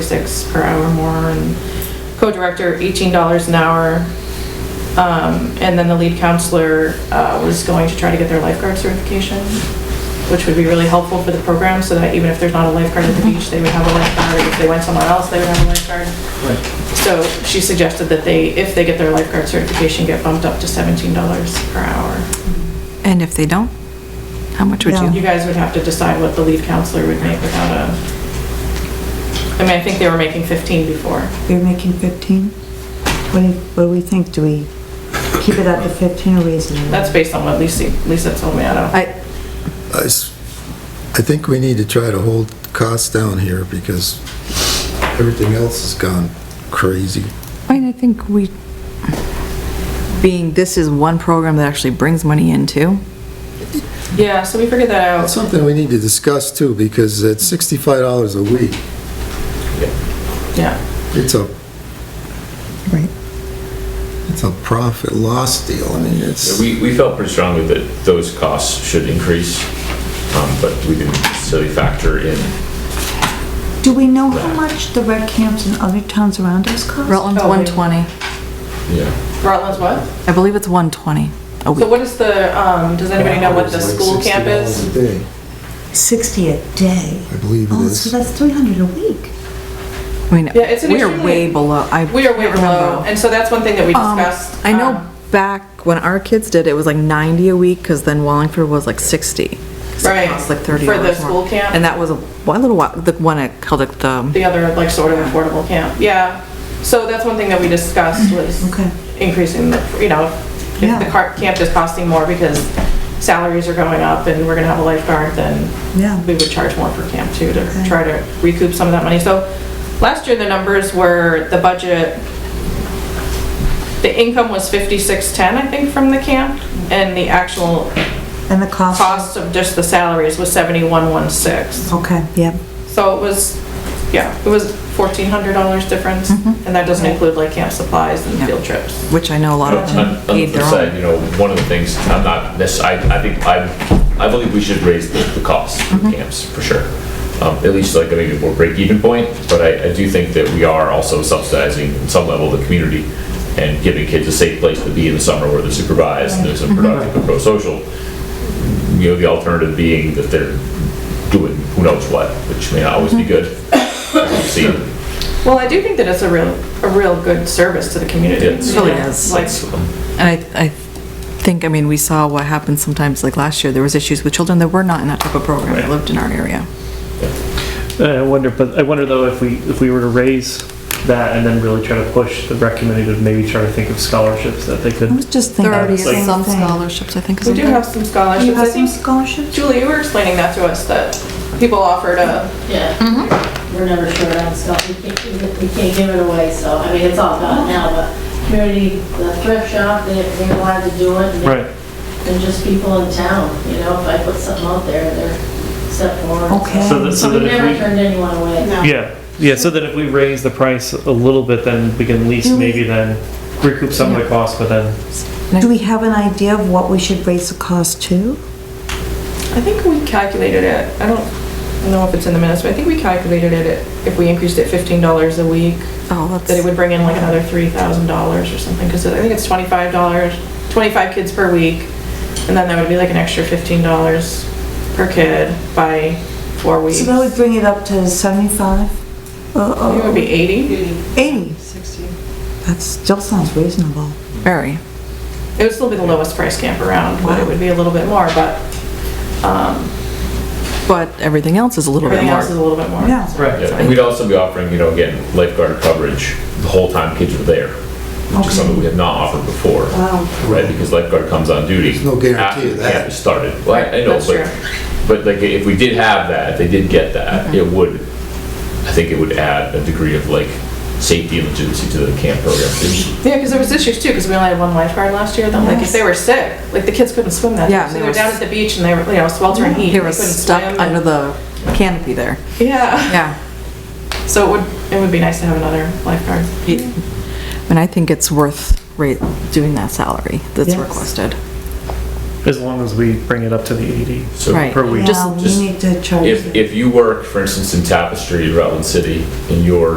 forty-six per hour more, and co-director eighteen dollars an hour. Um, and then the lead counselor, uh, was going to try to get their lifeguard certification, which would be really helpful for the program, so that even if there's not a lifeguard at the beach, they would have a lifeguard, if they went somewhere else, they would have a lifeguard. So she suggested that they, if they get their lifeguard certification, get bumped up to seventeen dollars per hour. And if they don't, how much would You you? guys would have to decide what the lead counselor would make without a, I mean, I think they were making 15 before. You're making 15? What do, you- what do we think? Do we keep it at the 15 or raise it? That's based on what Lisa, Lisa told me, I don't. I, I s- I think we need to try to hold costs down here because everything else has gone crazy. I mean, I think we, being this is one program that actually brings money in too. Yeah, so we figured that That's out. something we need to discuss too, because at sixty-five dollars a week, Yeah. it's a, Right. it's a profit loss deal. I mean, it's, We, we felt pretty strongly that those costs should increase, um, but we didn't necessarily factor in. Do we know how much the rec camps in other towns around us cost? Rutland's Oh, one maybe. twenty. Yeah. Rutland's what? I believe it's one twenty a So week. what is the, um, does anybody know what the It's like school camp $60 is? a day, 60 a day. I believe it Oh, so is. that's 300 a week. I mean, Yeah, it's an we are extremely- way below. I We are way can't remember. below, and so that's one thing that we Um, discussed. I know um, back when our kids did, it was like 90 a week, because then Wallingford was like 60. 'cause it Right, cost Like 30 for the dollars more. school camp. And that was a, one little while, the one at, called it the, The other, like, sort of affordable camp, yeah. So that's one thing that we discussed Mm, was Okay. increasing the, you know, if the Yeah. car- camp is costing more because salaries are going up and we're gonna have a lifeguard, then Yeah. we would charge more for camp too to try to recoup some of that money. So last year, the numbers were, the budget, the income was 5610, I think, from the camp, and the actual And the cost? cost of just the salaries was 7116. Okay, yeah. So it was, yeah, it was $1,400 difference, and that doesn't include like camp supplies and Yeah. field trips. which I know a lot of On them on the paid flip their side, own. you know, one of the things, I'm not necessarily, I, I think, I, I believe we should raise the, the costs for camps, for sure. Um, at least like maybe a more break-even point, but I, I do think that we are also subsidizing in some level the community and giving kids a safe place to be in the summer where they're supervised and there's a productive and pro-social. you know, the alternative being that they're doing who knows what, which may not always be good. We've seen, Well, I do think that it's a real, a real good service to the community. It is. you know, Really is. Like, And I, I think, I mean, we saw what happens sometimes, like last year, there was issues with children that were not in that type of program, that Right. lived in our area. Uh, I wonder, but I wonder though if we, if we were to raise that and then really try to push the rec committee to maybe try to think of scholarships that they I could. was just thinking There are the same some thing. scholarships, I think, we isn't do there? have some You scholarships. I have some think, scholarships? Julie, you were explaining that to us, that people offered uh, a, Yeah, we're never short on stuff, we can't, give it- we can't give it away, so, I mean, it's all gone now, but community, the thrift shop, they, they wanted to do it. and they- Right. And just people in town, you know, if I put something out there, they're set forward. Okay. So that, so So that we never if turned anyone away. we, yeah, yeah, so that if we raise the price a little bit, then we can at least maybe then recoup some of the cost, but then, Do we have an idea of what we should raise the cost to? I think we calculated it, I don't know if it's in the minutes, but I think we calculated it, at- if we increased it $15 a week, Oh, that it that's, would bring in like another $3,000 or something, because I think it's $25, 25 kids per week, and then that would be like an extra $15 per kid by four weeks. So that would bring it up to Oh, 75? I think It would be 80. Oh. 80? 60. That still sounds reasonable. very. It would still be the lowest price camp around, but it would be a little bit more, but um, But everything else is a little bit everything else is a more. little bit more. Yeah. right, Yeah, and we'd also be offering, you know, again, lifeguard coverage the whole time kids are there, which is something we have not offered before. Right, because lifeguard comes on duty. There's no guarantee after of the that. camp has started. Well, I I know, That's true. Mm-hmm. but, but like, if we did have that, if they did get that, it would, I think it would add a degree of like safety and legitimacy to the camp program. It's- Yeah, because there was issues too, because we only had one lifeguard last year, though, like if they were sick, like the kids couldn't swim that day. Yeah, So they they were were down s- at the beach and they were, you know, sweltering heat. They and were couldn't stuck swim under and- the canopy there. Yeah, Yeah. so it would, it would be nice to have another lifeguard. And I think it's worth ra- doing that salary that's Yes. requested. as long as we bring it up to the 80 So Right. per week. Yeah, we just- need to charge. If, if you work, for instance, in Tapestry, Rutland City, and you're